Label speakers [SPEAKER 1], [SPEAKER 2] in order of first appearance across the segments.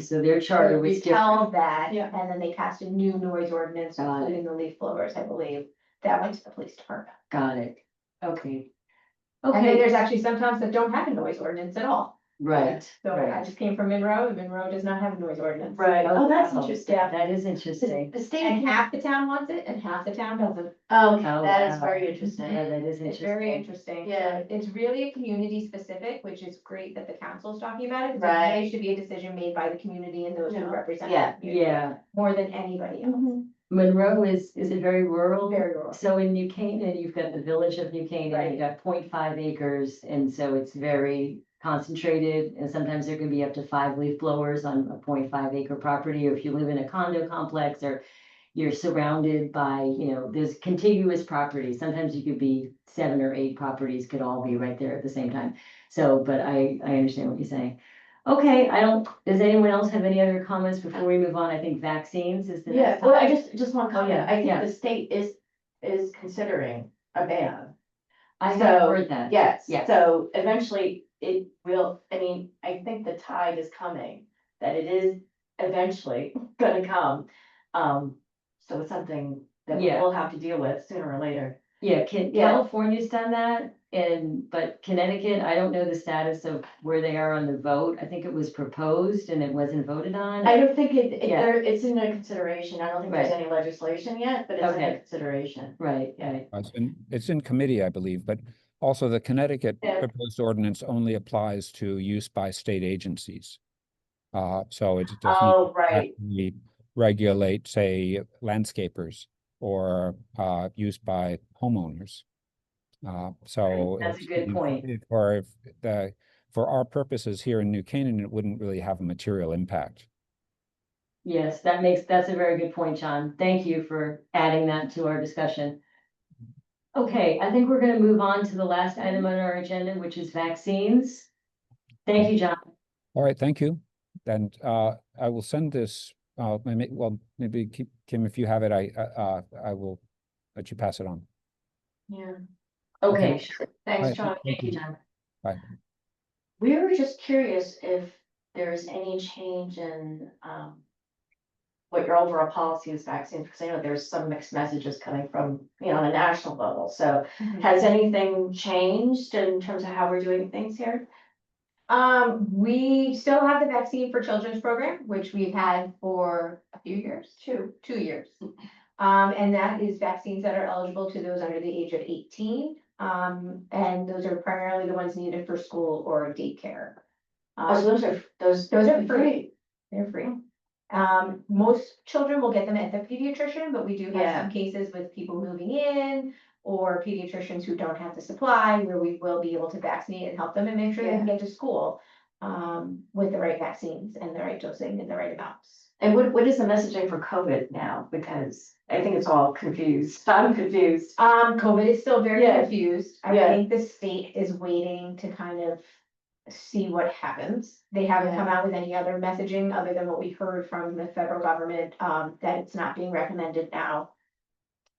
[SPEAKER 1] So their charter was different.
[SPEAKER 2] Held that,
[SPEAKER 3] Yeah.
[SPEAKER 2] and then they passed a new noise ordinance,
[SPEAKER 1] Got it.
[SPEAKER 2] including the leaf blowers, I believe, that went to the police department.
[SPEAKER 1] Got it. Okay.
[SPEAKER 2] And then
[SPEAKER 1] Okay,
[SPEAKER 2] there's actually some towns that don't have a noise ordinance at all,
[SPEAKER 1] right,
[SPEAKER 2] so I
[SPEAKER 1] right.
[SPEAKER 2] just came from Monroe, and Monroe does not have a noise ordinance.
[SPEAKER 3] Right.
[SPEAKER 2] Oh, that's
[SPEAKER 1] wow.
[SPEAKER 2] interesting.
[SPEAKER 1] That is interesting.
[SPEAKER 3] The the state.
[SPEAKER 2] And half the town wants it, and half the town doesn't,
[SPEAKER 3] Oh,
[SPEAKER 1] Oh,
[SPEAKER 3] that is
[SPEAKER 1] wow.
[SPEAKER 3] very
[SPEAKER 1] Yeah,
[SPEAKER 3] interesting.
[SPEAKER 1] that is
[SPEAKER 2] it's very
[SPEAKER 1] interesting.
[SPEAKER 2] interesting.
[SPEAKER 3] Yeah.
[SPEAKER 2] It's really community specific, which is great that the council's talking about it, because it really
[SPEAKER 3] Right.
[SPEAKER 2] should be a decision made by the community and those who
[SPEAKER 3] Yeah.
[SPEAKER 2] represent. the
[SPEAKER 1] Yeah,
[SPEAKER 2] community,
[SPEAKER 1] yeah.
[SPEAKER 2] More than anybody else,
[SPEAKER 1] Monroe is, is it very rural?
[SPEAKER 2] very rural.
[SPEAKER 1] So in New Canaan, you've got the village of New Canaan,
[SPEAKER 2] Right.
[SPEAKER 1] you've got 0.5 acres, and so it's very concentrated. And sometimes there can be up to five leaf blowers on a 0.5 acre property, or if you live in a condo complex, or you're surrounded by, you know, there's contiguous properties. Sometimes you could be seven or eight properties could all be right there at the same time. So, but I, I understand what you're saying. Okay, I don't, does anyone else have any other comments before we move on? I think vaccines is the
[SPEAKER 3] Yeah,
[SPEAKER 1] next
[SPEAKER 3] well, I
[SPEAKER 1] topic.
[SPEAKER 3] just, just want to comment,
[SPEAKER 1] yeah,
[SPEAKER 3] I
[SPEAKER 1] yeah.
[SPEAKER 3] think the state is, is considering a ban.
[SPEAKER 1] I have
[SPEAKER 3] so,
[SPEAKER 1] heard that.
[SPEAKER 3] Yes,
[SPEAKER 1] Yes.
[SPEAKER 3] so eventually it will, I mean, I think the tide is coming, that it is eventually gonna come. Um, so it's something that
[SPEAKER 1] Yeah.
[SPEAKER 3] we'll have to deal with sooner or later.
[SPEAKER 1] Yeah, Ca-
[SPEAKER 3] Yeah.
[SPEAKER 1] California's done that and, but Connecticut, I don't know the status of where they are on the vote. I think it was proposed and it wasn't voted on.
[SPEAKER 3] I don't think it, it,
[SPEAKER 1] Mm-hmm. Yeah.
[SPEAKER 3] there, it's in a consideration, I don't think there's any legislation yet, but it's in
[SPEAKER 1] Okay.
[SPEAKER 3] consideration.
[SPEAKER 1] Right, right.
[SPEAKER 4] Uh, It's in, it's in committee, I believe, but also the Connecticut
[SPEAKER 3] Yeah.
[SPEAKER 4] proposed ordinance only applies to use by state agencies. Uh, so it doesn't
[SPEAKER 3] Oh, right,
[SPEAKER 4] actually regulate, say, landscapers or, uh, use by homeowners. Uh, so.
[SPEAKER 1] that's a
[SPEAKER 4] it's-
[SPEAKER 1] good point.
[SPEAKER 4] it- Or if the, for our purposes here in New Canaan, it wouldn't really have a material impact.
[SPEAKER 1] Yes, that makes, that's a very good point, John. Thank you for adding that to our discussion. Okay, I think we're gonna move on to the last item on our agenda, which is vaccines. Thank you, John.
[SPEAKER 4] All right, thank you. And uh, I will send this, uh, I may- well, maybe Ki- Kim, if you have it, I, uh, uh, I will let you pass it on.
[SPEAKER 3] yeah.
[SPEAKER 1] Okay, sure.
[SPEAKER 4] All right,
[SPEAKER 3] Thanks, John.
[SPEAKER 1] Thank you, John.
[SPEAKER 3] We were just curious if there is any change in, um, what your overall policy is vaccines, because I know there's some mixed messages coming from, you know, on a national level. So
[SPEAKER 1] Mm-hmm.
[SPEAKER 3] has anything changed in terms of how we're doing things here?
[SPEAKER 2] Um, we still have the vaccine for children's program, which we've had for a few years, two, two years. Um, and that is vaccines that are eligible to those under the age of eighteen. Um, and those are primarily the ones needed for school or daycare.
[SPEAKER 3] Oh, so
[SPEAKER 2] Um,
[SPEAKER 3] those are, those.
[SPEAKER 2] Those are free. they're free. Um, most children will get them at the pediatrician, but we do have
[SPEAKER 3] Yeah.
[SPEAKER 2] some cases with people moving in or pediatricians who don't have the supply, where we will be able to vaccinate and help them and make sure they can get to school um, with the right vaccines and the right dosing and the right amounts.
[SPEAKER 3] And what, what is the messaging for COVID now? Because I think it's all confused. I'm confused.
[SPEAKER 2] Um, COVID is still very
[SPEAKER 3] Yeah.
[SPEAKER 2] confused. I
[SPEAKER 3] Yeah.
[SPEAKER 2] think the state is waiting to kind of see what happens. They haven't
[SPEAKER 3] Yeah.
[SPEAKER 2] come out with any other messaging other than what we heard from the federal government, um, that it's not being recommended now.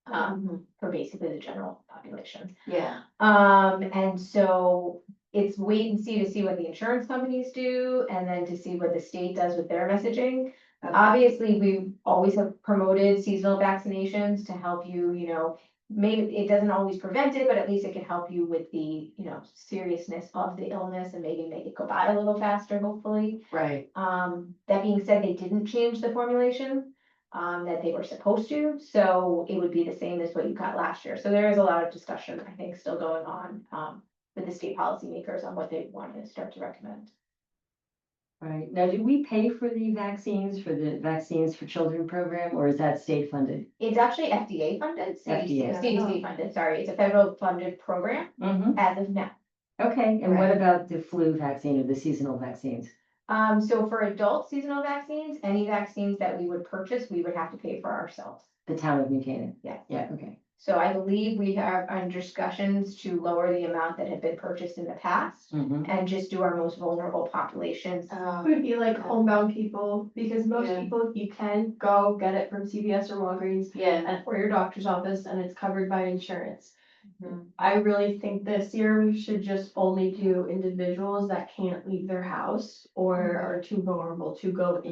[SPEAKER 2] Um,
[SPEAKER 3] Um,
[SPEAKER 2] for basically the general population.
[SPEAKER 3] yeah,
[SPEAKER 2] Um, and so it's wait and see to see what the insurance companies do and then to see what the state does with their messaging.
[SPEAKER 3] Okay.
[SPEAKER 2] Obviously, we always have promoted seasonal vaccinations to help you, you know, maybe it doesn't always prevent it, but at least it can help you with the, you know, seriousness of the illness and maybe make it go by a little faster, hopefully.
[SPEAKER 3] right.
[SPEAKER 2] Um, that being said, they didn't change the formulation, um, that they were supposed to, so it would be the same as what you got last year. So there is a lot of discussion, I think, still going on, um, with the state policymakers on what they want to start to recommend.
[SPEAKER 1] Right, now, do we pay for the vaccines, for the Vaccines for Children program, or is that state funded?
[SPEAKER 2] It's actually FDA funded, CDC,
[SPEAKER 1] FDA.
[SPEAKER 2] CDC funded, sorry, it's a federal funded program
[SPEAKER 1] Mm-hmm.
[SPEAKER 2] as of now.
[SPEAKER 1] Okay, and what
[SPEAKER 2] Right.
[SPEAKER 1] about the flu vaccine or the seasonal vaccines?
[SPEAKER 2] Um, so for adult seasonal vaccines, any vaccines that we would purchase, we would have to pay for ourselves.
[SPEAKER 1] The town of New Canaan?
[SPEAKER 2] Yes.
[SPEAKER 1] Yeah, okay.
[SPEAKER 2] So I believe we are on discussions to lower the amount that had been purchased in the past
[SPEAKER 1] Mhm.
[SPEAKER 2] and just do our most vulnerable populations.
[SPEAKER 3] Um,
[SPEAKER 5] Would be like homebound people, because most
[SPEAKER 3] Yeah.
[SPEAKER 5] people, you can go get it from CVS or Walgreens
[SPEAKER 3] yeah.
[SPEAKER 5] and- or your doctor's office and it's covered by insurance.
[SPEAKER 3] Mhm.
[SPEAKER 5] I really think this year we should just
[SPEAKER 3] Mm-hmm.
[SPEAKER 5] only do individuals that can't leave their house or are too vulnerable to go